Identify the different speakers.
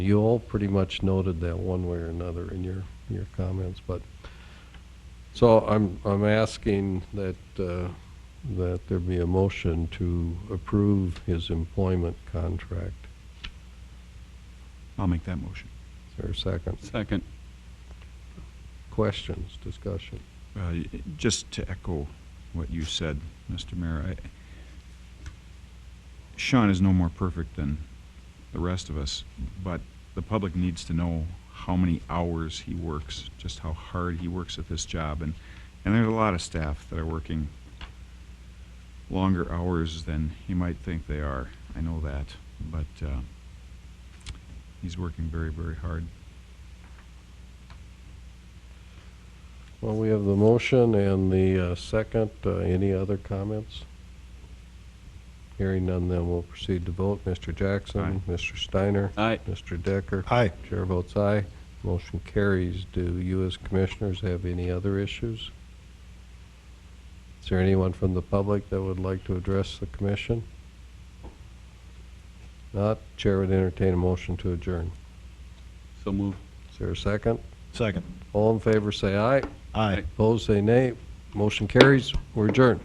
Speaker 1: You all pretty much noted that one way or another in your, your comments, but, so I'm, I'm asking that, uh, that there be a motion to approve his employment contract.
Speaker 2: I'll make that motion.
Speaker 1: Is there a second?
Speaker 3: Second.
Speaker 1: Questions, discussion?
Speaker 2: Uh, y- Just to echo what you said, Mr. Mayor, I- Sean is no more perfect than the rest of us, but the public needs to know how many hours he works, just how hard he works at this job. And, and there's a lot of staff that are working longer hours than you might think they are. I know that, but uh, he's working very, very hard.
Speaker 1: Well, we have the motion and the uh, second. Uh, Any other comments? Hearing none, then we'll proceed to vote. Mr. Jackson? Mr. Steiner?
Speaker 3: Aye.
Speaker 1: Mr. Decker?
Speaker 4: Aye.
Speaker 1: Chair votes aye. Motion carries. Do you as commissioners have any other issues? Is there anyone from the public that would like to address the commission? Not, Chair would entertain a motion to adjourn.
Speaker 3: So moved.
Speaker 1: Is there a second?
Speaker 4: Second.
Speaker 1: All in favor, say aye.
Speaker 4: Aye.
Speaker 1: Opposed, say nay. Motion carries. We're adjourned.